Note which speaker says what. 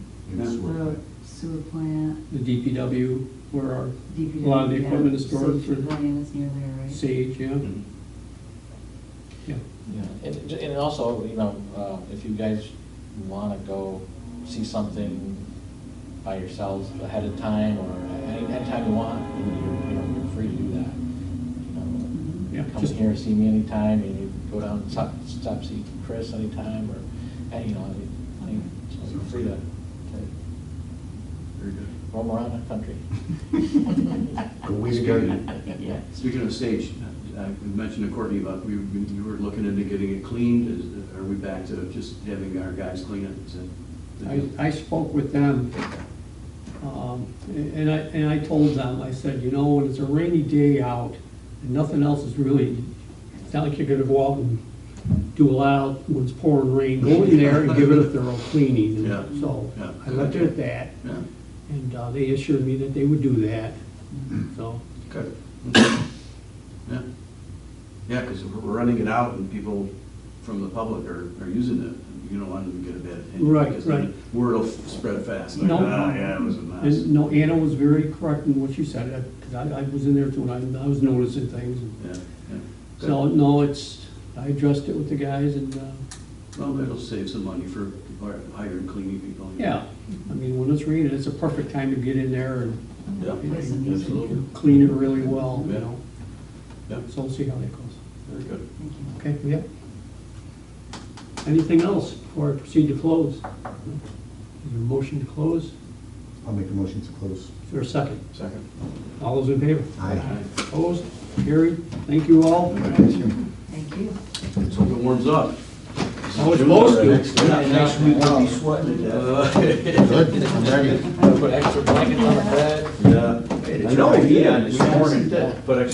Speaker 1: in the sewer
Speaker 2: Road,
Speaker 1: plant.
Speaker 2: Sewer plant,
Speaker 3: The DPW, where our
Speaker 2: DPW.
Speaker 3: A lot of the
Speaker 2: yeah,
Speaker 3: equipment is stored
Speaker 2: safety
Speaker 3: for-
Speaker 2: Plan is near there, right?
Speaker 3: sage, yeah,
Speaker 1: Mhm.
Speaker 3: yeah.
Speaker 4: Yeah, and, it- and also, you know, uh, if you guys wanna go see something by yourselves ahead of time, or any, anytime you want, you know, you're, you know, you're free to do that.
Speaker 2: Mm-hmm.
Speaker 4: You
Speaker 3: Yeah,
Speaker 4: know, Come
Speaker 3: just-
Speaker 4: in here, see me anytime, and you go down, and stop, stop, see Chris anytime, or, and, you know, I mean, so you're free to to
Speaker 1: Very good.
Speaker 4: roam around the country.
Speaker 1: But we started-
Speaker 4: Yeah.
Speaker 1: Speaking of stage, I mentioned to Courtney about, we, we you were looking into getting it cleaned, is, are we back to just having our guys clean it? Is that the
Speaker 3: I,
Speaker 1: deal?
Speaker 3: I spoke with them, um, and I, and I told them, I said, you know, when it's a rainy day out, and nothing else is really, it's not like you're gonna go out and do a lot when it's pouring rain, go in there and give it a thorough cleaning.
Speaker 1: Yeah,
Speaker 3: And So,
Speaker 1: yeah.
Speaker 3: I left it at that,
Speaker 1: Yeah,
Speaker 3: and uh, they assured me that they would do that, so,
Speaker 1: good. Yeah, yeah, because we're running it out and people from the public are, are using it, you don't want them to get a bad opinion.
Speaker 3: Right,
Speaker 1: because then
Speaker 3: right.
Speaker 1: Word will spread fast, like,
Speaker 3: No.
Speaker 1: ah, yeah, it was a
Speaker 3: and,
Speaker 1: mess.
Speaker 3: no, Anna was very correct in what she said, because I, I was in there too, and I, I was noticing things, and
Speaker 1: Yeah, yeah. Good.
Speaker 3: So, no, it's, I addressed it with the guys and, uh,
Speaker 1: Well, that'll save some money for hiring cleaning people.
Speaker 3: yeah, I mean, when it's raining, it's a perfect time to get in there and-
Speaker 1: Yeah,
Speaker 2: Listen, these are
Speaker 1: absolutely.
Speaker 2: you.
Speaker 3: and clean it really well, you
Speaker 1: Yeah.
Speaker 3: know?
Speaker 1: Yeah.
Speaker 3: So we'll see how that goes.
Speaker 1: Very good.
Speaker 2: Thank you.
Speaker 3: Okay, yeah. Anything else before I proceed to close? Is there a motion to close? Is
Speaker 5: I'll make a motion to close.
Speaker 3: there a second?
Speaker 1: Second.
Speaker 3: All those in favor?
Speaker 5: Aye.
Speaker 3: Opposed? Carried? Thank you all.
Speaker 2: Thank you.
Speaker 1: Let's hope it warms up.
Speaker 3: Oh, it's supposed to.
Speaker 4: Next week,
Speaker 5: I'll be
Speaker 4: sweating to
Speaker 1: Uh,
Speaker 5: Good, I'm ready.
Speaker 4: Put extra blankets on the bed.
Speaker 1: Yeah. I know, yeah, this morning, but I